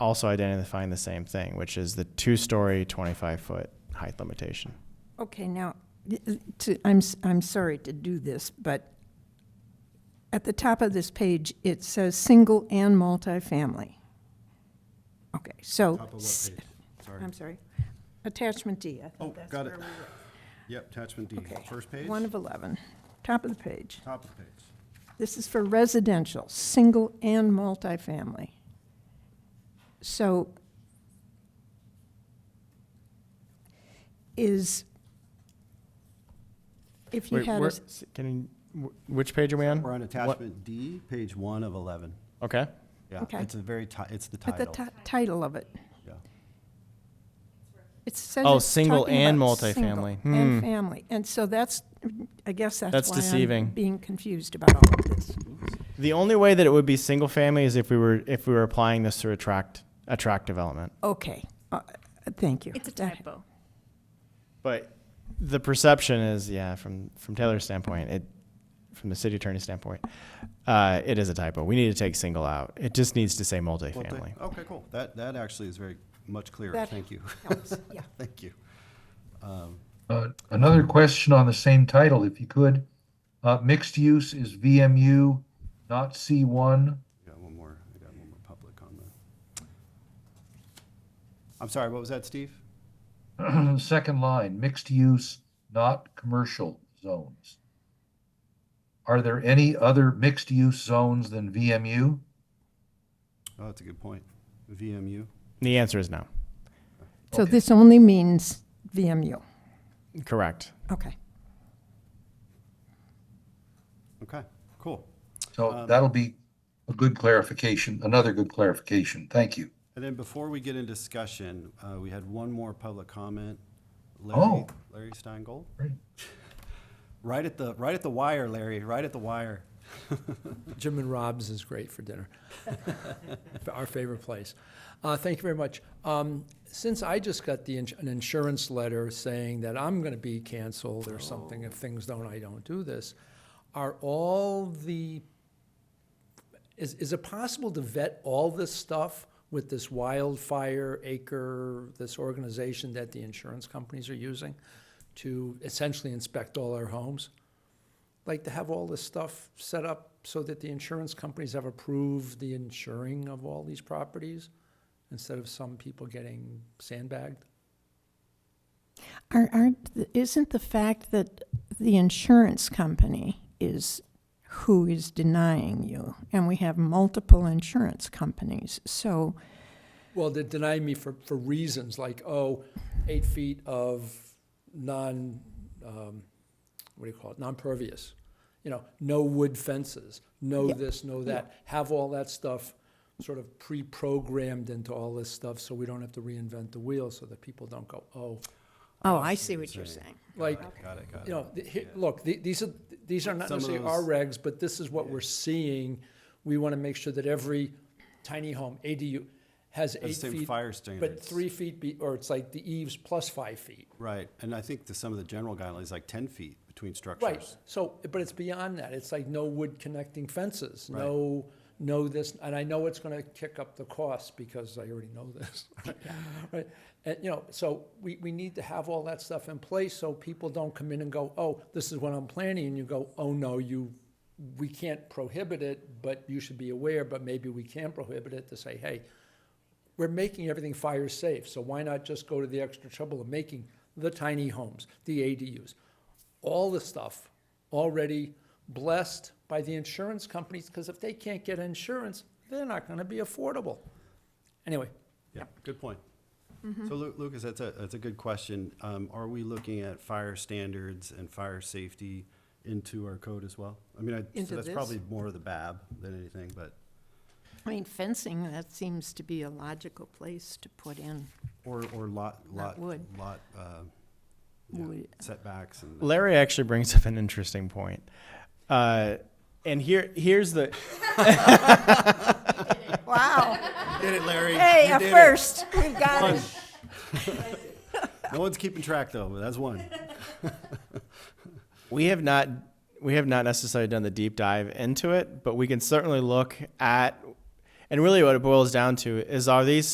also identifying the same thing, which is the two-story, 25-foot height limitation. Okay, now, to, I'm, s- I'm sorry to do this, but at the top of this page, it says single and multifamily. Okay, so. Top of s- what page? Sorry. I'm sorry. Attachment D, I Oh, thought that's got it. where we were. Yep, attachment D, Okay. first page, One of 11, top of the page. top of page. This is for residential, single and multifamily. So is, if you Wait, had, where- a s- s- can, you- wh- which page are we on? We're on What- attachment D, page one of 11. Okay, Yeah, Okay. it's a very, ti- it's the at the title. ti- title of it, Yeah. it says. Oh, it's single talking and about single multifamily. And Hmm. family. And so that's, I guess that's That's why I'm deceiving. Being confused about all of this. the only way that it would be single-family is if we were, if we were applying this to attract, attract development. Okay, uh, thank you. It's a That- typo. But the perception is, yeah, from, from Taylor's standpoint, it, from the city attorney's standpoint, uh, it is a typo. We need to take single out. It just needs to say Well, th- multifamily. Okay, cool. That, that actually is very much clearer. That Thank you. helps, yeah. Thank you. Uh, Another question on the same title, if you could. Uh, Mixed use is VMU, not C1. I got one more, I got one more public on that. I'm sorry, what was that, Steve? Second line, mixed use, not commercial zones. Are there any other mixed use zones than VMU? Oh, that's a good point. VMU? The answer is no. So this only means VMU. Correct. Okay. Okay, cool. So that'll be a good clarification, another good clarification. Thank you. And then before we get in discussion, uh, we had one more public comment. Larry, Oh. Larry Steingold? Great. Right at the, right at the wire, Larry, right at the wire. Jim and Rob's is great for dinner. Our favorite place. Uh, thank you very much. Um, since I just got the ins- an insurance letter saying that I'm going to be canceled or something if things don't, I don't do this, are all the is, is it possible to vet all this stuff with this wildfire acre, this organization that the insurance companies are using to essentially inspect all our homes? like to have all this stuff set up so that the insurance companies have approved the insuring of all these properties instead of some people getting sandbagged? Are, aren't, th- isn't the fact that the insurance company is who is denying you, and we have multiple insurance companies, so, Well, they deny me for, for reasons like, oh, eight feet of non, um, what do you call it, non-pervious. You know, no wood fences, no Yeah. this, no that. Have all that stuff sort of pre-programmed into all this stuff so we don't have to reinvent the wheel so that people don't go, oh, oh, I see what you're saying. like, Got it, got you it. know, th- he- look, th- these are, these are not Some of necessarily our those- regs, but this is what we're seeing. We want to make sure that every tiny home ADU has the eight same feet. fire But standards. three feet be, or it's like the eaves plus five feet. Right, and I think the, some of the general guidelines, like ten feet between Right, structures. so, but it's beyond that. It's like no wood connecting fences, Right. no, no this, and I know it's gonna kick up the cost because I already know this. Right, and, you know, so we, we need to have all that stuff in place so people don't come in and go, oh, this is what I'm planning, and you go, oh, no, you, we can't prohibit it, but you should be aware, but maybe we can prohibit it to say, hey, we're making everything fire safe, so why not just go to the extra trouble of making the tiny homes, the ADUs? All the stuff already blessed by the insurance companies, because if they can't get insurance, they're not gonna be affordable. Anyway, Yeah, good point. So Lu- Lucas, that's a, that's a good question. Um, are we looking at fire standards and fire safety into our code as well? I mean, I, Into so that's this? probably more of the BAB than anything, but, I mean, fencing, that seems to be a logical place to put in or, or lot, Not lot, wood. lot, uh, yeah, wood. setbacks and. Larry actually brings up an interesting point. Uh, and here, here's the, Wow, Get it, Larry. hey, You a did it. first, we got it. No one's keeping track though, but that's one. We have not we have not necessarily done the deep dive into it, but we can certainly look at and really what it boils down to is are these